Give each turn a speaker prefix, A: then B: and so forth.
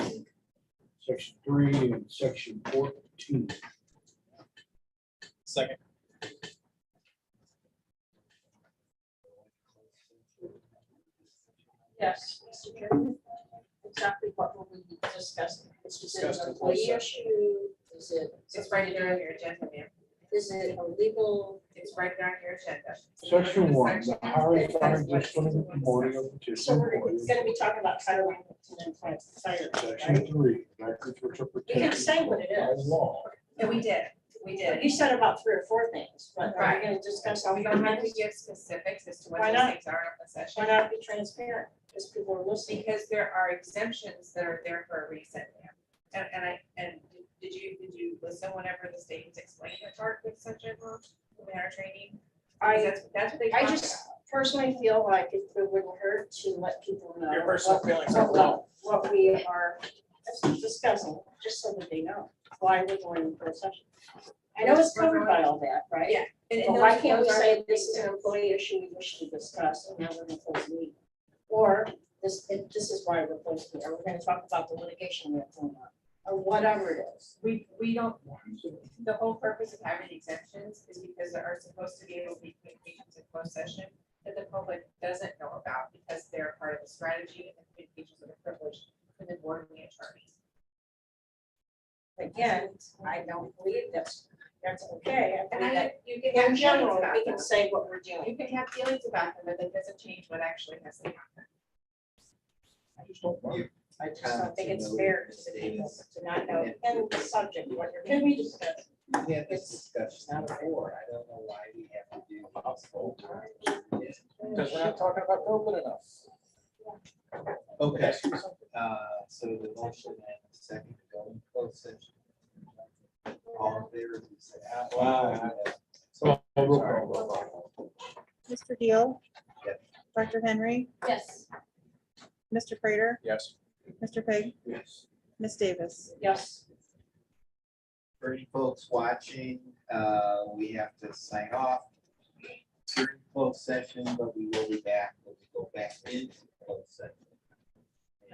A: section three and section fourteen.
B: Second.
C: Yes, Mr. Chairman, exactly what will we be discussing? Is it
B: Discussed
C: an
B: in
C: employee
B: closed
C: issue? Is it,
D: It's right there on your agenda, ma'am.
C: is it a legal?
D: It's right there on your agenda.
A: Section one, the
D: Section.
A: hiring, firing, disciplining, and promoting of
C: So
A: particular
C: we're
A: employees.
C: gonna be talking about title one, and then fire, right?
A: Section three, records which are
C: You can say
A: protected
C: what it
A: by
C: is.
A: law.
D: No, we did, we did.
C: You said about three or four things, but are
D: Right.
C: we gonna discuss all
D: We don't
C: the
D: have to give specifics as to what
C: Why
D: those
C: not?
D: things are in the
C: Why
D: session.
C: not be transparent? Because people are listening.
D: Because there are exemptions that are there for a reason, ma'am. And, and I, and did you, did you listen whenever the state was explaining the chart with such a, in our training? Because
C: I,
D: That's, that's what they
C: I
D: talked
C: just personally feel like it wouldn't hurt to let people know.
B: Your personal
C: what-
B: feelings
C: what-
B: are wrong.
C: What we are discussing, just so that they know why we're going into a session. I know it's covered by all that,
D: about.
C: right?
D: Yeah. And-
C: But
D: and
C: why
D: those-
C: can't we
D: those are
C: say
D: the
C: this is an
D: exemptions.
C: employee issue we wish to discuss and now we're going to close the meeting? Or this, and this is why we're closing, or we're gonna talk about the litigation we have going on, or whatever it is.
D: We, we don't, the whole purpose of having exemptions is because there are supposed to be able to be communications in closed session that the public doesn't know about because they're part of the strategy and the communications are privileged for the board and the attorneys.
C: Again, I don't believe that's, that's okay. I
D: And
C: believe that
D: I, you can
C: In
D: have feelings
C: general,
D: about
C: we
D: them.
C: can say what we're doing.
D: You can have feelings about them, but that doesn't change what actually has to happen.
A: I just don't want it.
C: I just don't think it's fair to people to not know in the subject what you're.
E: Can we discuss?
F: We had this discussion before, I don't know why we have to do this whole time.
B: Because we're not talking about COVID enough.
F: Okay, uh, so the motion and the second to go in closed session. All in favor, please say aye.
B: Wow.
F: So,
A: roll
F: sorry.
A: call.
G: Mr. Deal?
F: Yes.
G: Dr. Henry?
C: Yes.
G: Mr. Prater?
B: Yes.
G: Mr. Peg?
A: Yes.
G: Ms. Davis?
C: Yes.
F: For any folks watching, uh, we have to sign off during closed session, but we will be back, we'll go back into closed session.